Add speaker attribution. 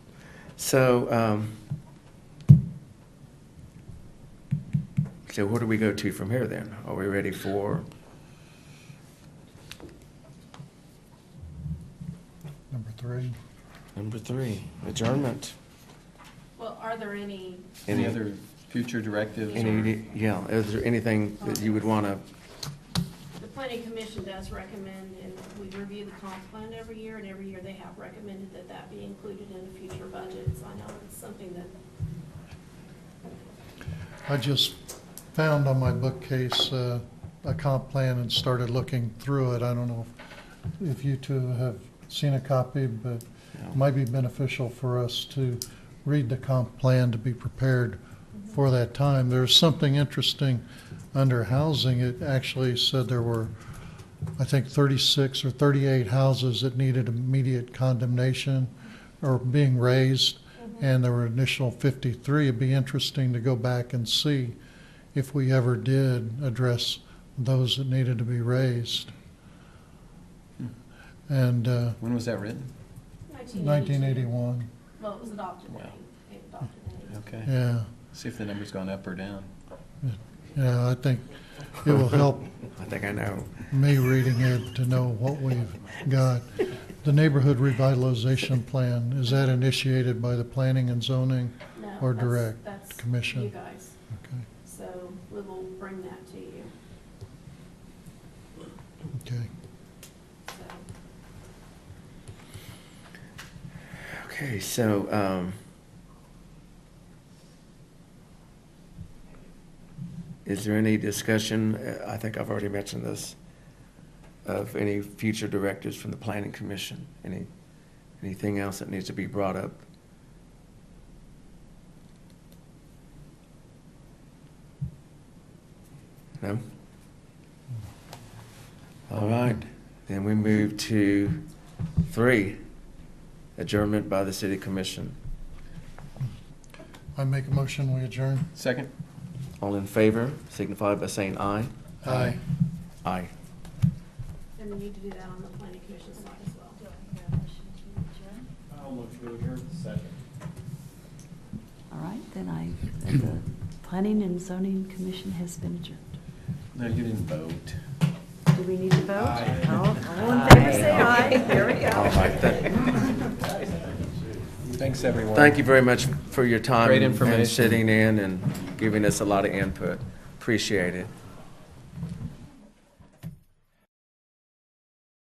Speaker 1: So, um, so where do we go to from here then? Are we ready for,
Speaker 2: Number three,
Speaker 1: number three, adjournment?
Speaker 3: Well, are there any,
Speaker 4: Any other future directives or
Speaker 1: Any, yeah, is there anything that you would want to,
Speaker 3: the planning commission does recommend, and we review the comp plan every year, and every year they have recommended that that be included in the future budgets. I know it's something that,
Speaker 2: I just found on my bookcase uh, a comp plan and started looking through it. I don't know if- if you two have seen a copy, but it might be beneficial for us to read the comp plan to be prepared for that time. There's something interesting under housing. It actually said there were, I think, 36 or 38 houses that needed immediate condemnation or being raised, and there were initial 53. It'd be interesting to go back and see if we ever did address those that needed to be raised. And uh,
Speaker 4: when was that written?
Speaker 3: 1982.
Speaker 2: 1981,
Speaker 3: Well, it was adopted in,
Speaker 4: Wow.
Speaker 3: it adopted in.
Speaker 4: Okay.
Speaker 2: yeah.
Speaker 4: See if the number's gone up or down.
Speaker 2: Yeah, I think it will help
Speaker 1: I think I know.
Speaker 2: me reading it to know what we've got. The neighborhood revitalization plan, is that initiated by the planning and zoning?
Speaker 3: No,
Speaker 2: Or
Speaker 3: that's-
Speaker 2: direct
Speaker 3: that's
Speaker 2: commission.
Speaker 3: You guys,
Speaker 2: Okay,
Speaker 3: so we will bring that to you,
Speaker 2: okay.
Speaker 3: so.
Speaker 1: Okay, so, um, is there any discussion, uh, I think I've already mentioned this, of any future directives from the planning commission? Any, anything else that needs to be brought up? No? All right, then we move to three, adjournment by the city commission.
Speaker 2: I make a motion, we adjourn?
Speaker 4: Second?
Speaker 1: All in favor, signify by saying aye.
Speaker 2: Aye.
Speaker 1: Aye.
Speaker 3: And we need to do that on the planning commission side as well.
Speaker 5: I'll look through here. Second.
Speaker 6: All right, then I, then the Planning and Zoning Commission has been adjourned.
Speaker 4: No, you didn't vote.
Speaker 6: Do we need to vote?
Speaker 5: Aye.
Speaker 6: All all in favor, say aye. There we
Speaker 1: All
Speaker 6: go.
Speaker 1: right, thank-
Speaker 4: Thanks, everyone.
Speaker 1: Thank you very much for your time.
Speaker 4: Great
Speaker 1: and
Speaker 4: information.
Speaker 1: sitting in and giving us a lot of input. Appreciate it.